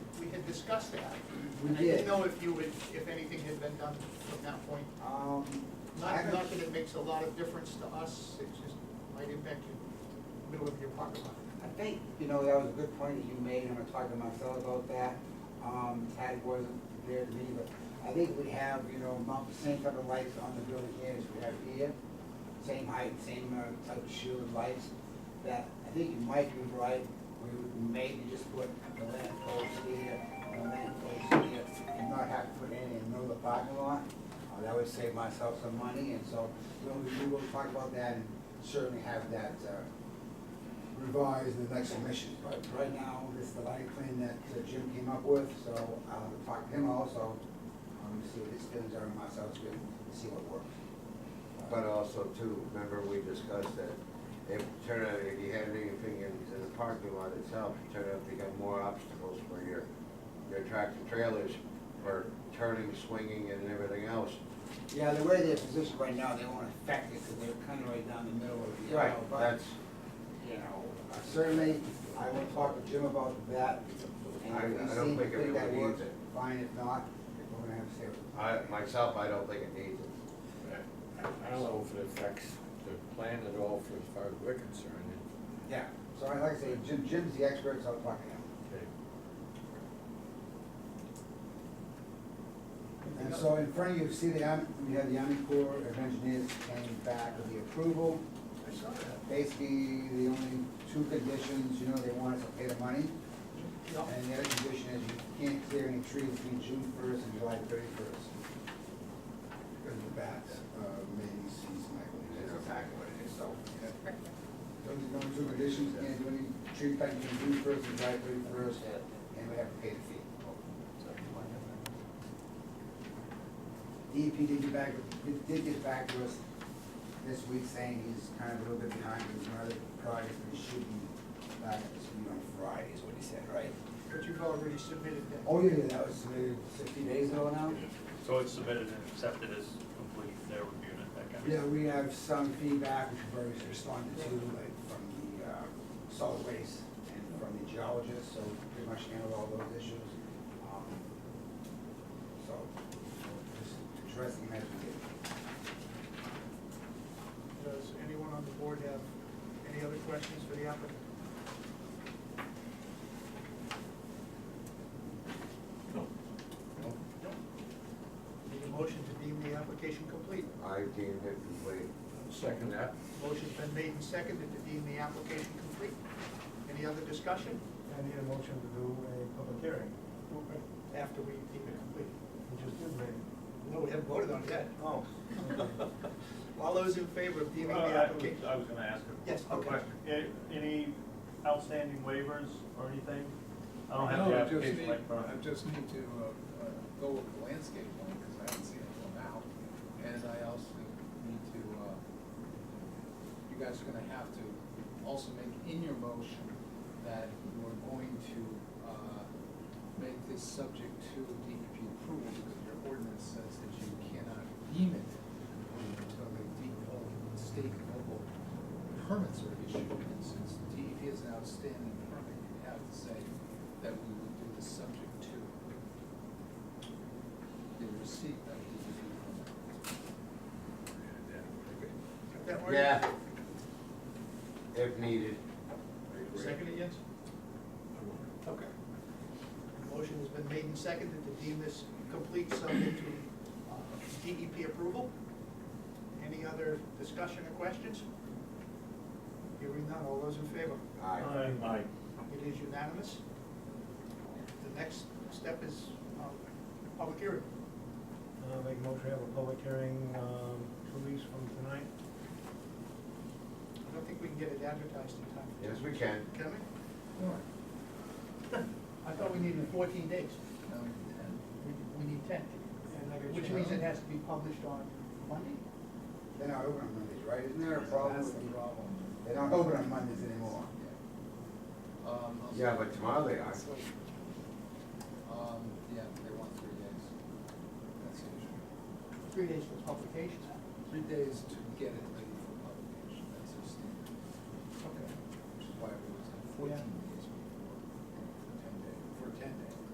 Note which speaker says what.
Speaker 1: discuss that.
Speaker 2: We
Speaker 1: And I didn't
Speaker 2: did.
Speaker 1: know if you would, if anything had been done from that point.
Speaker 2: Um, I
Speaker 1: Not, not
Speaker 2: haven't,
Speaker 1: that it makes a lot of difference to us, it just might impact the middle of your parking lot.
Speaker 2: I think, you know, that was a good point that you made, and I talked to Marcel about that. Um, Tad wasn't there to me, but I think we have, you know, about the same type of lights on the building here as we have here. Same height, same uh, type of shield lights, that I think you might be right, we would maybe just put the lamp post here, the lamp post here, and not have to put any in the middle of the parking lot. Uh, That would save myself some money, and so, you know, we- we will talk about that and certainly have that, uh, revise the next submission, but right now, this is the lighting plan that uh, Jim came up with, so I'll talk to him also, um, see what his feelings are, and myself, to see what works.
Speaker 3: But also too, remember we discussed that if turn out, if you had anything in in the parking lot itself, it turned out to become more obstacles for your, your tractor trailers for turning, swinging and everything else.
Speaker 2: Yeah, the way they're positioned right now, they won't affect it, because they're kind of right down the middle of the aisle, but,
Speaker 3: That's,
Speaker 2: you know, uh, certainly, I will talk to Jim about that. and
Speaker 3: I-
Speaker 2: if he
Speaker 3: I don't
Speaker 2: seems
Speaker 3: think
Speaker 2: to
Speaker 3: it
Speaker 2: that
Speaker 3: really
Speaker 2: works,
Speaker 3: needs it.
Speaker 2: Fine, if not, we're gonna have to stay with it.
Speaker 3: I, myself, I don't think it needs it.
Speaker 4: I don't know if it affects the plan at all for as far as we're concerned.
Speaker 2: Yeah, so I- like I say, Jim, Jim's the expert, so I'll talk to him.
Speaker 4: Okay.
Speaker 2: And so in front of you, see the, Army- we have the Army Corps of Engineers came back with the approval.
Speaker 1: I saw that.
Speaker 2: Basically, the only two conditions, you know, they want us to pay the money.
Speaker 1: No,
Speaker 2: And the other condition is you can't clear any trees between June first and July thirty-first.
Speaker 5: Because the bats, uh, mating season, I believe.
Speaker 2: That's exactly what it is, so.
Speaker 5: Yeah.
Speaker 2: Those are the only two conditions, you can't do any tree cutting between June first and July thirty-first, and we have to pay the fee. DEP E did get back, did- did get back to us this week saying he's kind of a little bit behind with another project, but he should be back at this meeting on Friday, is what he said, right?
Speaker 1: But you've already submitted that.
Speaker 2: Oh, yeah, yeah, that was submitted sixty days ago now?
Speaker 6: So it's submitted and accepted as complete, they're reviewing it, that kind of.
Speaker 5: Yeah, we have some feedback, which we've already responded to, like, from the, uh,
Speaker 2: solid waste and from the geologist, so pretty much handled all those issues. Um, So, just interesting as we did.
Speaker 1: Does anyone on the board have any other questions for the applicant?
Speaker 6: No.
Speaker 1: No. Need a motion to deem the application complete.
Speaker 3: I deemed it complete.
Speaker 4: Second that.
Speaker 1: Motion's been made and seconded to deem the application complete. Any other discussion
Speaker 7: I need a motion to do a public hearing.
Speaker 1: after we deem it complete?
Speaker 7: We just did that.
Speaker 1: No, we haven't voted on it yet.
Speaker 7: Oh.
Speaker 1: All those in favor of deeming
Speaker 6: Uh,
Speaker 1: the
Speaker 6: I
Speaker 1: application?
Speaker 6: was- I was gonna ask a
Speaker 1: Yes,
Speaker 6: a
Speaker 1: okay.
Speaker 6: question. A- Any outstanding waivers or anything? I don't have the
Speaker 8: No, I just
Speaker 6: application
Speaker 8: need-
Speaker 6: like front.
Speaker 8: I just need to uh, uh, go with the landscape one, because I haven't seen it till now. And I also need to, uh, you guys are gonna have to also make in your motion that you're going to uh, make this subject to DEP approval, because your ordinance says that you cannot deem it until the DEP, state and local permits are issued, and since DEP is an outstanding permit, you have to say that we would do this subject to the receipt of the DEP permit.
Speaker 1: Got that word?
Speaker 3: Yeah. If needed.
Speaker 1: Second it, yes? Okay. Motion has been made and seconded to deem this complete subject to uh, DEP approval. Any other discussion or questions? Hearing none, all those in favor?
Speaker 3: Aye.
Speaker 7: Uh,
Speaker 6: Aye.
Speaker 1: It is unanimous. The next step is um, public hearing.
Speaker 7: Uh, make a motion, to have a public hearing, um, two weeks from tonight.
Speaker 1: I don't think we can get it advertised in time.
Speaker 3: Yes, we can.
Speaker 1: Can we?
Speaker 8: Warrant,
Speaker 1: I thought we needed fourteen days.
Speaker 8: no, intent.
Speaker 1: We- We need ten. Which means it has to be published on Monday?
Speaker 2: They're not open on Mondays, right? Isn't there a problem
Speaker 8: That's
Speaker 2: with,
Speaker 8: the problem.
Speaker 2: they don't open on Mondays anymore?
Speaker 8: Yeah. Um, I'll-
Speaker 3: Yeah, but tomorrow they are.
Speaker 8: Um, yeah, they want three days. That's usual.
Speaker 1: Three days for publication.
Speaker 8: Three days to get it, like,